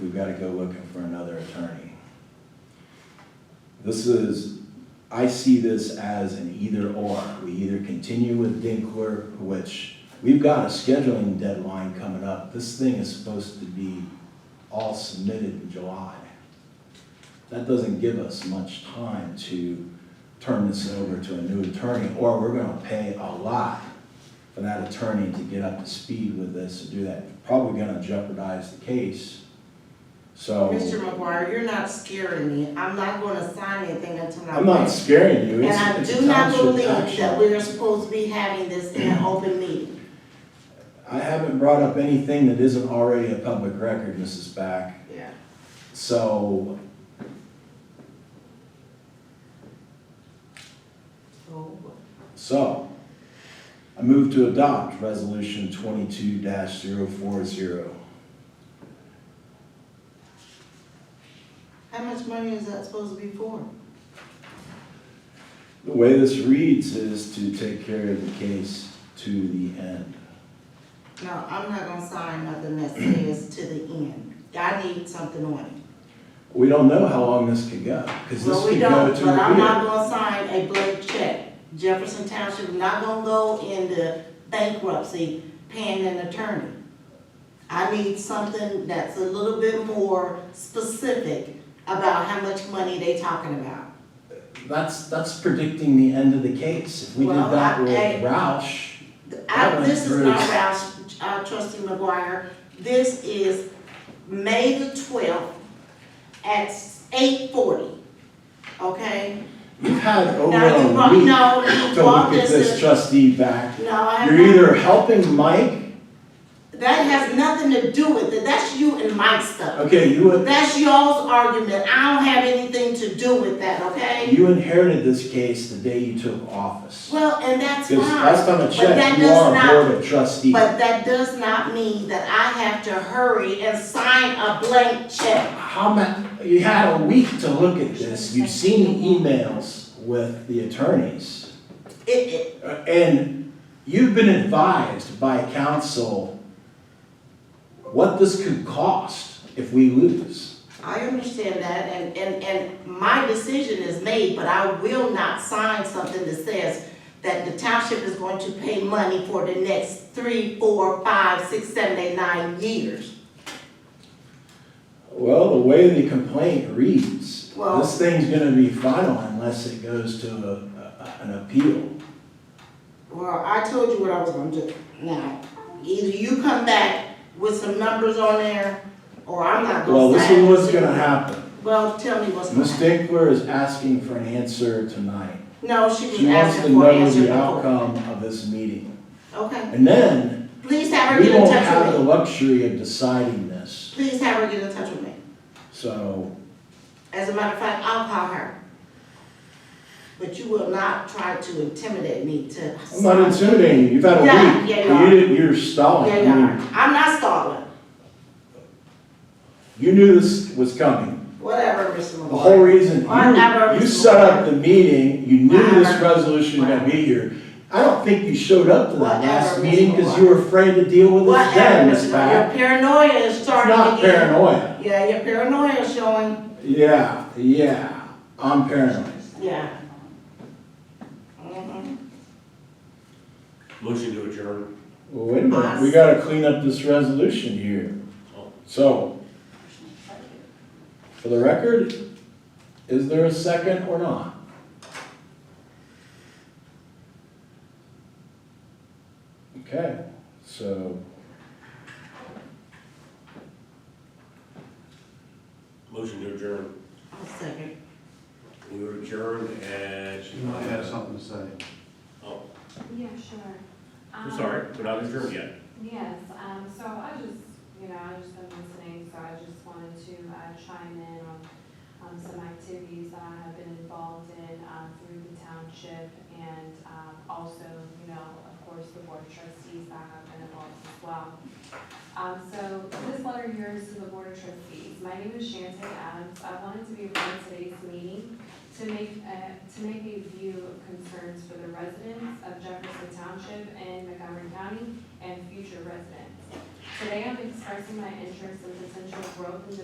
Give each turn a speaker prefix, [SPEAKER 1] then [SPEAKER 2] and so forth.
[SPEAKER 1] we've gotta go looking for another attorney. This is, I see this as an either or. We either continue with Dinkler, which, we've got a scheduling deadline coming up. This thing is supposed to be all submitted in July. That doesn't give us much time to turn this over to a new attorney, or we're gonna pay a lot for that attorney to get up to speed with this and do that. Probably gonna jeopardize the case, so.
[SPEAKER 2] Mr. McGuire, you're not scaring me. I'm not gonna sign anything until I.
[SPEAKER 1] I'm not scaring you,
[SPEAKER 2] And
[SPEAKER 1] it's,
[SPEAKER 2] I
[SPEAKER 1] it's
[SPEAKER 2] do
[SPEAKER 1] a
[SPEAKER 2] not
[SPEAKER 1] township
[SPEAKER 2] believe that
[SPEAKER 1] action.
[SPEAKER 2] we are supposed to be having this in an open meeting.
[SPEAKER 1] I haven't brought up anything that isn't already a public record, Mrs. Back,
[SPEAKER 2] Yeah.
[SPEAKER 1] so
[SPEAKER 2] Oh,
[SPEAKER 1] So, I move to adopt resolution twenty-two 40
[SPEAKER 2] how much money is that supposed to be for?
[SPEAKER 1] The way this reads is to take care of the case to the end.
[SPEAKER 2] No, I'm not gonna sign nothing that says to the end. I need something on it.
[SPEAKER 1] We don't know how long this could go, because this
[SPEAKER 2] Well, we
[SPEAKER 1] could go
[SPEAKER 2] don't,
[SPEAKER 1] to
[SPEAKER 2] but I'm not
[SPEAKER 1] a year.
[SPEAKER 2] gonna sign a blank check. Jefferson Township is not gonna go into bankruptcy paying an attorney. I need something that's a little bit more specific about how much money they talking about.
[SPEAKER 1] That's, that's predicting the end of the case. If we did
[SPEAKER 2] Well,
[SPEAKER 1] that with
[SPEAKER 2] I-
[SPEAKER 1] Roush, That
[SPEAKER 2] I,
[SPEAKER 1] went
[SPEAKER 2] this is
[SPEAKER 1] through.
[SPEAKER 2] not Roush, uh, trustee McGuire, this is May the twelfth at eight forty, okay?
[SPEAKER 1] you've had over
[SPEAKER 2] Now, you
[SPEAKER 1] a
[SPEAKER 2] brought,
[SPEAKER 1] week
[SPEAKER 2] no, you
[SPEAKER 1] to look
[SPEAKER 2] brought
[SPEAKER 1] at
[SPEAKER 2] this
[SPEAKER 1] this
[SPEAKER 2] in,
[SPEAKER 1] trustee back.
[SPEAKER 2] no, I
[SPEAKER 1] You're
[SPEAKER 2] have,
[SPEAKER 1] either helping Mike,
[SPEAKER 2] that has nothing to do with it, that's you and my stuff.
[SPEAKER 1] okay, you would
[SPEAKER 2] That's y'all's argument, I don't have anything to do with that, okay?
[SPEAKER 1] You inherited this case the day you took office.
[SPEAKER 2] Well, and that's fine.
[SPEAKER 1] Because last time I
[SPEAKER 2] but that
[SPEAKER 1] checked, you
[SPEAKER 2] does
[SPEAKER 1] are
[SPEAKER 2] not-
[SPEAKER 1] a board of trustees.
[SPEAKER 2] But that does not mean that I have to hurry and sign a blank check.
[SPEAKER 1] How ma, you had a week to look at this, you've seen the emails with the attorneys.
[SPEAKER 2] It, it,
[SPEAKER 1] Uh, And you've been advised by counsel what this could cost if we lose.
[SPEAKER 2] I understand that, and, and, and my decision is made, but I will not sign something that says that the township is going to pay money for the next three, four, five, six, seven, eight, nine years.
[SPEAKER 1] Well, the way the complaint reads,
[SPEAKER 2] Well-
[SPEAKER 1] this thing's gonna be final unless it goes to a, a- an appeal.
[SPEAKER 2] Well, I told you what I was gonna do. Now, either you come back with some numbers on there, or I'm not gonna sign.
[SPEAKER 1] Well, this is what's
[SPEAKER 2] anything.
[SPEAKER 1] gonna happen.
[SPEAKER 2] Well, tell me what's gonna
[SPEAKER 1] Ms.
[SPEAKER 2] happen.
[SPEAKER 1] Dinkler is asking for an answer tonight.
[SPEAKER 2] No, she was
[SPEAKER 1] She wants to
[SPEAKER 2] asking for an
[SPEAKER 1] know
[SPEAKER 2] answer
[SPEAKER 1] the
[SPEAKER 2] before.
[SPEAKER 1] outcome of this meeting.
[SPEAKER 2] Okay,
[SPEAKER 1] And then,
[SPEAKER 2] please have her
[SPEAKER 1] we
[SPEAKER 2] get in
[SPEAKER 1] won't
[SPEAKER 2] touch
[SPEAKER 1] have the
[SPEAKER 2] with me.
[SPEAKER 1] luxury of deciding this.
[SPEAKER 2] Please have her get in touch with me.
[SPEAKER 1] So,
[SPEAKER 2] As a matter of fact, I'll call her. But you will not try to intimidate me to.
[SPEAKER 1] I'm not intimidating you, you've had a
[SPEAKER 2] Yeah,
[SPEAKER 1] week.
[SPEAKER 2] yeah, you
[SPEAKER 1] and
[SPEAKER 2] are.
[SPEAKER 1] didn't, you're stalling.
[SPEAKER 2] Yeah,
[SPEAKER 1] I
[SPEAKER 2] you are.
[SPEAKER 1] mean,
[SPEAKER 2] I'm not stalling.
[SPEAKER 1] You knew this was coming.
[SPEAKER 2] Whatever, Mr.
[SPEAKER 1] The whole
[SPEAKER 2] McGuire.
[SPEAKER 1] reason,
[SPEAKER 2] Whatever,
[SPEAKER 1] you, you
[SPEAKER 2] Mr.
[SPEAKER 1] set up
[SPEAKER 2] Lawyer.
[SPEAKER 1] the meeting, you knew this
[SPEAKER 2] Whatever.
[SPEAKER 1] resolution was gonna be here. I don't think you showed up to that last
[SPEAKER 2] Whatever, Mr.
[SPEAKER 1] meeting because you were afraid to deal with this then,
[SPEAKER 2] Whatever,
[SPEAKER 1] Ms.
[SPEAKER 2] Mr. McGuire.
[SPEAKER 1] Back.
[SPEAKER 2] Your paranoia is
[SPEAKER 1] It's
[SPEAKER 2] starting
[SPEAKER 1] not
[SPEAKER 2] again.
[SPEAKER 1] paranoia.
[SPEAKER 2] Yeah, your paranoia is showing,
[SPEAKER 1] Yeah, yeah, I'm paranoid.
[SPEAKER 2] yeah. Mhm.
[SPEAKER 3] Motion to adjourn.
[SPEAKER 1] Well, wait a minute, we gotta clean up this resolution here. So, for the record, is there a second or not? Okay, so,
[SPEAKER 3] Motion to adjourn.
[SPEAKER 2] I'll second.
[SPEAKER 3] We were adjourned at.
[SPEAKER 4] You might have something to say.
[SPEAKER 3] Oh,
[SPEAKER 5] Yeah, sure.
[SPEAKER 3] I'm
[SPEAKER 5] Um,
[SPEAKER 3] sorry, we're not adjourned yet.
[SPEAKER 5] Yes, um, so I just, you know, I just been listening, so I just wanted to uh, chime in on, on some activities that I have been involved in, um, through the township and, um, also, you know, of course, the board of trustees that have been involved as well. Um, so this letter here is to the board of trustees. My name is Shantae Adams. I wanted to be a part of today's meeting to make, uh, to make a view of concerns for the residents of Jefferson Township and Montgomery County and future residents. Today, I'm expressing my interest in potential growth in the